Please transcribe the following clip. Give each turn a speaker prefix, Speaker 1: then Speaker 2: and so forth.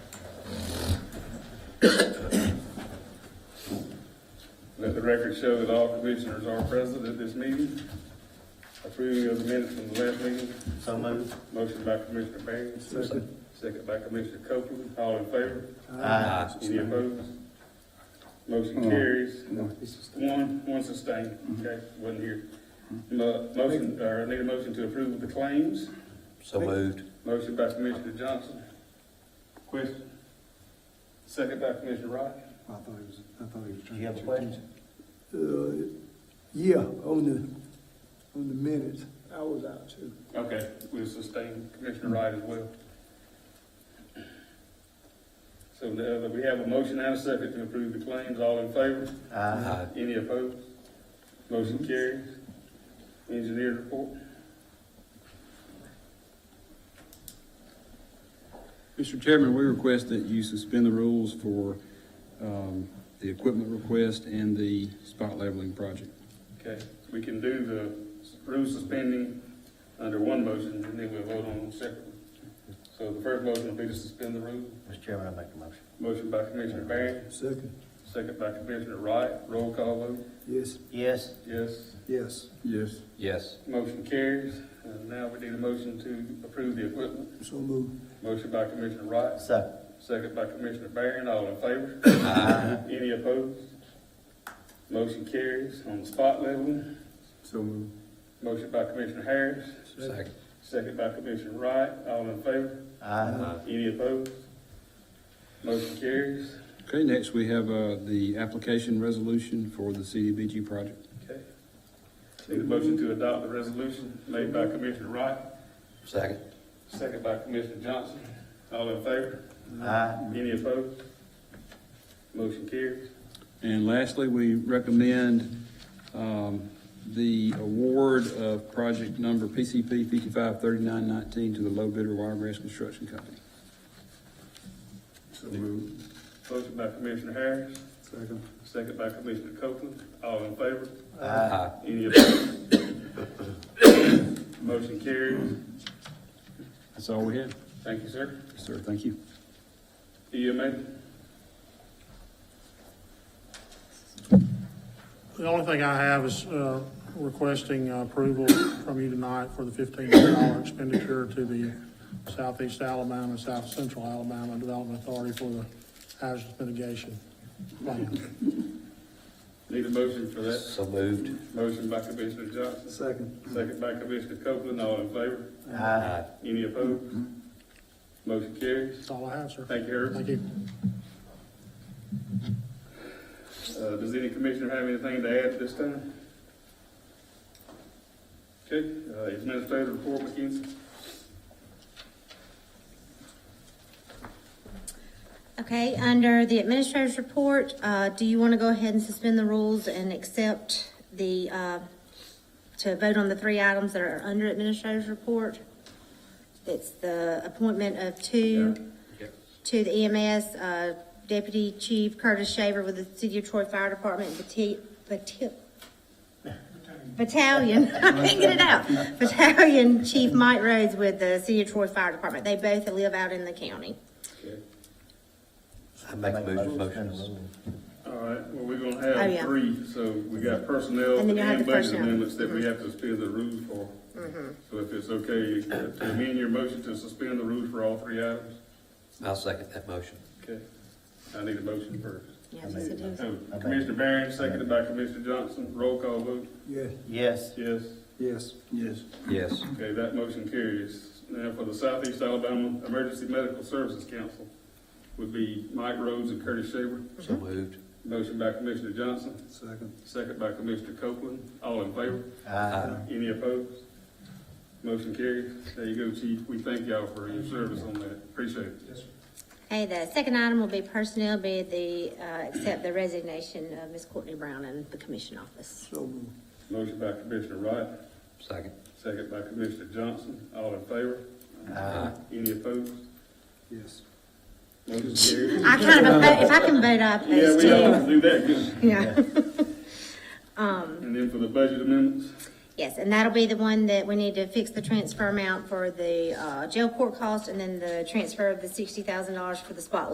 Speaker 1: The record show that all commissioners are present at this meeting. Approving of the minutes from the last meeting.
Speaker 2: So moved.
Speaker 1: Motion by Commissioner Baines. Second. Second by Commissioner Copeland. All in favor?
Speaker 2: Aye.
Speaker 1: Any opposed? Motion carries. One, one sustained, okay, wasn't here.
Speaker 2: Mm-hmm.
Speaker 1: Mo- Motion, or I need a motion to approve the claims.
Speaker 2: So moved.
Speaker 1: Motion by Commissioner Johnson. Question? Second by Commissioner Wright.
Speaker 3: I thought he was, I thought he was
Speaker 2: Do
Speaker 3: trying to.
Speaker 2: you have a question?
Speaker 4: Uh, Yeah, on the, on the minutes, I was out too.
Speaker 1: Okay, we'll sustain Commissioner Wright as well. So the, we have a motion and a second to approve the claims. All in favor?
Speaker 2: Uh, Aye.
Speaker 1: Any opposed? Motion carries. Engineer report.
Speaker 5: Mr. Chairman, we request that you suspend the rules for um, the equipment request and the spot leveling project.
Speaker 1: Okay, we can do the rule suspending under one motion, and then we'll vote on them separately. So the first motion will be to suspend the rule.
Speaker 2: Mr. Chairman, I make the motion.
Speaker 1: Motion by Commissioner Barron,
Speaker 4: Second,
Speaker 1: second by Commissioner Wright. Roll call vote.
Speaker 4: yes,
Speaker 2: Yes.
Speaker 1: Yes,
Speaker 4: yes,
Speaker 5: Yes.
Speaker 2: Yes.
Speaker 1: motion carries. And now we need a motion to approve the equipment.
Speaker 4: so move,
Speaker 1: Motion by Commissioner Wright,
Speaker 2: Second.
Speaker 1: second by Commissioner Barron. All in favor?
Speaker 2: Aye.
Speaker 1: Any opposed? Motion carries on the spot level.
Speaker 5: So moved.
Speaker 1: Motion by Commissioner Harris,
Speaker 2: Second.
Speaker 1: second by Commissioner Wright, all in favor?
Speaker 2: Uh, Aye.
Speaker 1: Any opposed? Motion carries.
Speaker 5: Okay, next we have uh, the application resolution for the CDBG project.
Speaker 1: Okay. Need a motion to adopt the resolution made by Commissioner Wright,
Speaker 2: Second.
Speaker 1: second by Commissioner Johnson, all in favor?
Speaker 2: Aye.
Speaker 1: Any opposed? Motion carries.
Speaker 5: And lastly, we recommend um, the award of project number PCP 553919 to the low bidder Wiregrass Construction Company.
Speaker 1: So moved. Motion by Commissioner Harris,
Speaker 3: Second.
Speaker 1: second by Commissioner Copeland, all in favor?
Speaker 2: Aye.
Speaker 1: Any opposed? Motion carries.
Speaker 5: That's all we have.
Speaker 1: Thank you, sir.
Speaker 5: Sir, thank you.
Speaker 1: EMA?
Speaker 6: The only thing I have is uh, requesting uh, approval from you tonight for the fifteen million dollar expenditure to the Southeast Alabama and South Central Alabama Development Authority for the hazardous mitigation plan.
Speaker 1: Need a motion for that?
Speaker 2: Uh, So moved.
Speaker 1: Motion by Commissioner Johnson,
Speaker 3: Second.
Speaker 1: second by Commissioner Copeland, all in favor?
Speaker 2: uh, Aye.
Speaker 1: Any opposed? Motion carries.
Speaker 6: That's all I have, sir.
Speaker 1: Thank you, Herb.
Speaker 6: Thank you.
Speaker 1: Uh, does any commissioner have anything to add at this time? Okay, uh, administrative report, McKenzie?
Speaker 7: Okay, under the administrator's report, uh, do you want to go ahead and suspend the rules and accept the, uh, to vote on the three items that are under administrator's report? It's the appointment of two, to the EMS, uh, Deputy Chief Curtis Shaver with the City of Troy Fire Department Bati- Bati- Battalion, I can't get it out, Battalion Chief Mike Rhodes with the City of Troy Fire Department. They both live out in the county.
Speaker 2: I make the motion. Motion.
Speaker 1: All right, well, we're gonna
Speaker 7: Oh,
Speaker 1: have
Speaker 7: yeah.
Speaker 1: three, so we got personnel
Speaker 7: And then you have
Speaker 1: and
Speaker 7: the
Speaker 1: budget
Speaker 7: personnel. Mm-hmm.
Speaker 1: amendments that we have to suspend the rules for. So if it's okay, uh, to amend your motion to suspend the rules for all three items?
Speaker 2: I'll second that motion.
Speaker 1: Okay. I need a motion first.
Speaker 7: Yeah, yes, it is.
Speaker 1: So, Commissioner Barron, seconded by Commissioner Johnson, roll call vote,
Speaker 4: yeah,
Speaker 2: Yes.
Speaker 1: yes.
Speaker 3: Yes.
Speaker 5: Yes.
Speaker 2: Yes.
Speaker 1: Okay, that motion carries. Now for the Southeast Alabama Emergency Medical Services Council would be Mike Rhodes and Curtis Shaver.
Speaker 2: So moved.
Speaker 1: Motion by Commissioner Johnson,
Speaker 3: Second.
Speaker 1: second by Commissioner Copeland, all in favor?
Speaker 2: Aye.
Speaker 1: Any opposed? Motion carries. There you go, Chief. We thank y'all for your service on that. Appreciate it.
Speaker 7: Okay, the second item will be personnel, be the, uh, accept the resignation of Ms. Courtney Brown in the commission office.
Speaker 4: so move,
Speaker 1: Motion by Commissioner Wright,
Speaker 2: Second.
Speaker 1: second by Commissioner Johnson. All in favor?
Speaker 2: Aye.
Speaker 1: Any opposed?
Speaker 3: Yes.
Speaker 1: Motion carries.
Speaker 7: I kind of, oppo- if I can vote up
Speaker 1: Yeah,
Speaker 7: those
Speaker 1: we all
Speaker 7: two.
Speaker 1: do that, good.
Speaker 7: Yeah,
Speaker 1: And then for the budget amendments,
Speaker 7: yes, and that'll be the one that we need to fix the transfer amount for the, uh, jail court cost and then the transfer of the sixty thousand dollars for the spot